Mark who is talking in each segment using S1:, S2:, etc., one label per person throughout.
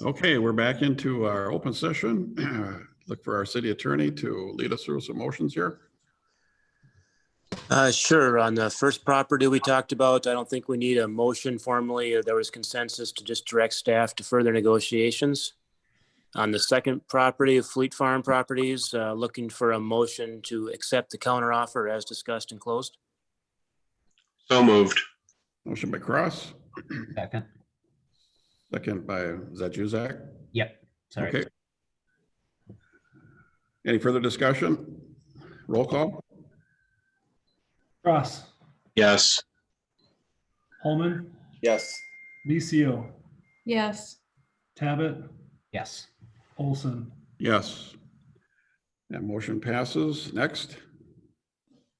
S1: Okay, we're back into our open session. Look for our city attorney to lead us through some motions here.
S2: Uh, sure. On the first property we talked about, I don't think we need a motion formally. There was consensus to just direct staff to further negotiations. On the second property of Fleet Farm Properties, uh, looking for a motion to accept the counteroffer as discussed and closed.
S3: So moved.
S1: Motion by Cross,
S4: Second.
S1: second by, is that you, Zach?
S4: Yep.
S1: Okay.
S4: Sorry.
S1: Any further discussion? Roll call?
S5: Cross,
S3: Yes.
S5: Holman,
S6: yes,
S5: Licio,
S7: yes,
S5: Tabit,
S4: Yes.
S5: Olson.
S1: Yes. That motion passes. Next,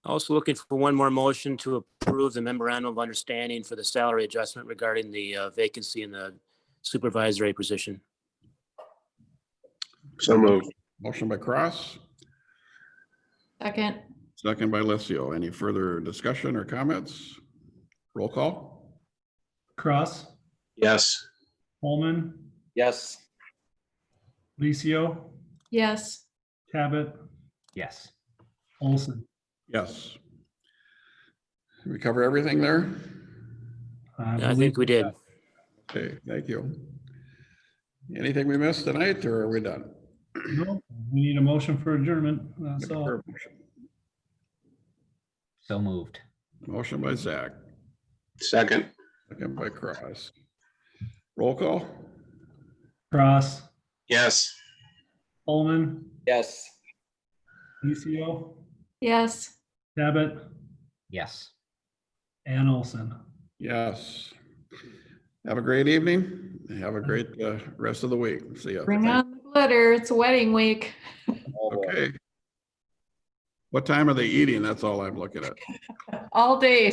S2: Also looking for one more motion to approve the memorandum of understanding for the salary adjustment regarding the uh, vacancy in the supervisory position.
S3: So moved.
S1: motion by Cross,
S7: second,
S1: second by Licio. Any further discussion or comments? Roll call?
S5: Cross,
S3: Yes.
S5: Holman,
S6: yes,
S5: Licio,
S7: yes,
S5: Tabit,
S4: Yes.
S5: Olson.
S1: Yes. We cover everything there?
S2: I think we did.
S1: Okay, thank you. Anything we missed tonight, or are we done?
S5: No, We need a motion for adjournment. That's all.
S4: So moved.
S1: Motion by Zach,
S3: Second.
S1: second by Cross. Roll call?
S5: Cross,
S3: Yes.
S5: Holman,
S6: yes.
S5: Licio,
S7: yes.
S5: Tabit,
S4: Yes.
S5: and Olson.
S1: Yes. Have a great evening. Have a great uh, rest of the week. See ya.
S7: Bring on the glitter. It's wedding week.
S6: Oh, boy.
S1: Okay. What time are they eating? That's all I'm looking at.
S7: All day